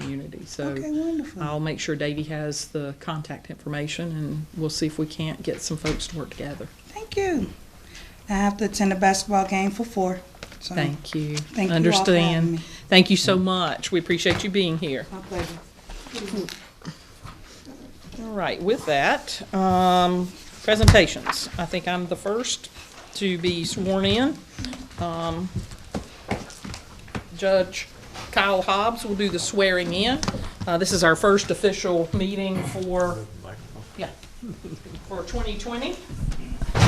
community. So Okay, wonderful. I'll make sure Davy has the contact information, and we'll see if we can't get some folks to work together. Thank you. I have to attend a basketball game for four. So Thank you. Thank you all for having Understand. me. Thank you so much. We appreciate you being here. My pleasure. All right, with that, um, presentations. I think I'm the first to be sworn in. Um, Judge Kyle Hobbs will do the swearing in. Uh, this is our first official meeting for, yeah, for 2020. My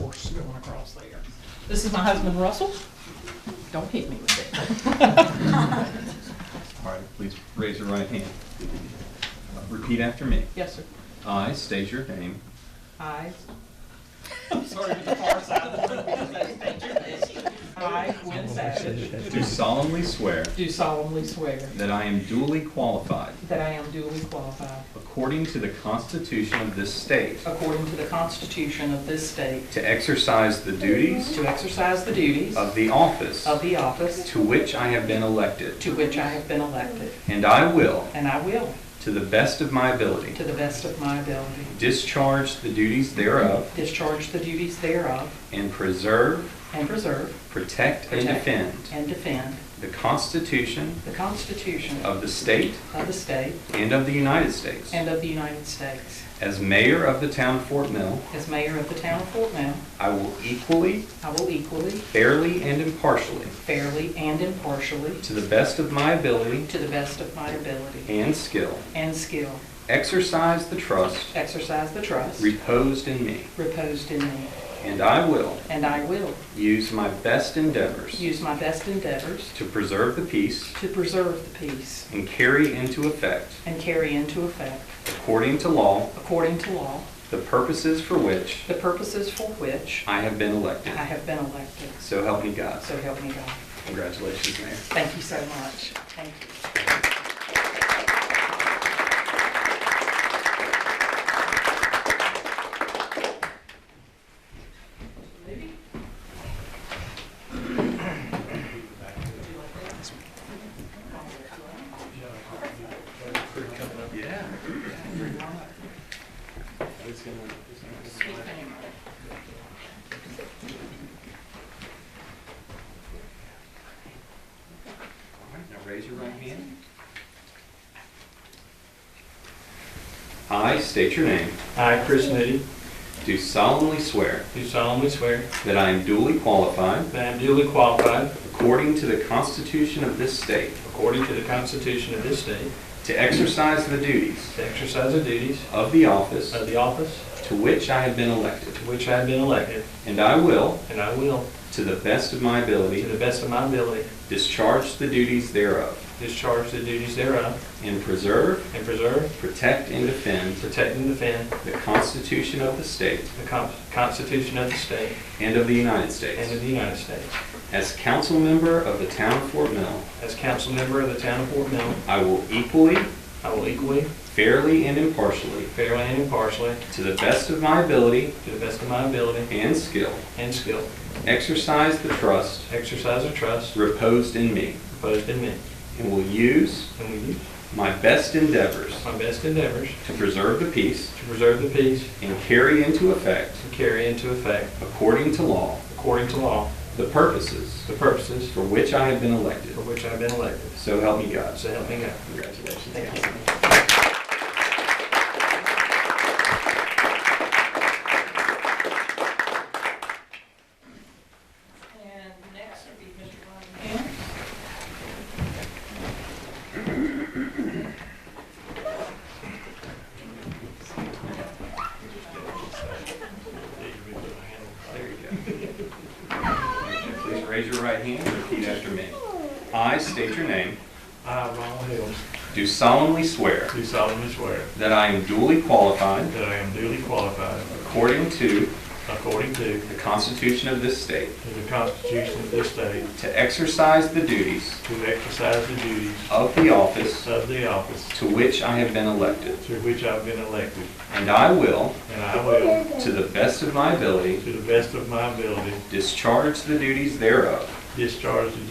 horse going across there. This is my husband Russell. Don't hit me with it. All right, please raise your right hand. Repeat after me. Yes, sir. I state your name. I. I'm sorry, Mr. Forsythe. I, Gwen Savage, Do solemnly swear do solemnly swear that I am duly qualified, that I am duly qualified, according to the Constitution of this state, according to the Constitution of this state, to exercise the duties to exercise the duties of the office of the office to which I have been elected, to which I have been elected, and I will, and I will, to the best of my ability, to the best of my ability, discharge the duties thereof, discharge the duties thereof, and preserve, and preserve, protect, and Protect. defend and defend the Constitution the Constitution of the state of the state and of the United States. and of the United States. As mayor of the town of Fort Mill, As mayor of the town of Fort Mill, I will equally, I will equally, fairly, and impartially, fairly, and impartially, to the best of my ability to the best of my ability and skill, and skill, exercise the trust exercise the trust reposed in me, reposed in me, and I will and I will use my best endeavors use my best endeavors to preserve the peace to preserve the peace and carry into effect, and carry into effect, according to law, according to law, the purposes for which the purposes for which I have been elected. I have been elected. So help me God. So help me God. Congratulations, Mayor. Thank you so much. Thank you. All right, now raise your right hand. I state your name, I, Chris Moody, do solemnly swear do solemnly swear that I am duly qualified, that I am duly qualified, according to the Constitution of this state, according to the Constitution of this state, to exercise the duties to exercise the duties of the office of the office to which I have been elected, to which I have been elected, and I will, and I will, to the best of my to ability, the best of my ability, discharge the duties thereof, discharge the duties thereof, and preserve, and preserve, protect, and defend protect, and defend the Constitution of the state the Con- Constitution of the state and of the United and of States. the United States. As council member of the town of Fort Mill, As council member of the town of Fort Mill, I will equally, I will equally, fairly, and impartially, fairly, and impartially, to the best of my ability to the best of my ability and skill, and skill, exercise the trust exercise the trust reposed in me, reposed in me, and will use and will use my best endeavors my best endeavors to preserve the peace to preserve the peace and carry into effect, to carry into effect, according to law, according to law, the purposes the purposes for which I have been elected. for which I have been elected. So help me God. So help me God. Congratulations. Thank you. And next would be Mr. Ryan Ham. There you go. Please raise your right hand and repeat after me. I state your name, I, Ronald Hill, do solemnly swear do solemnly swear that I am duly qualified that I am duly qualified, According to according to the Constitution of this state, the Constitution of this state, to exercise the duties to exercise the duties of the office of the office to which I have been elected, to which I have been elected, and I will, and I will, to the best of my ability, to the best of my ability, discharge the duties thereof, discharge the duties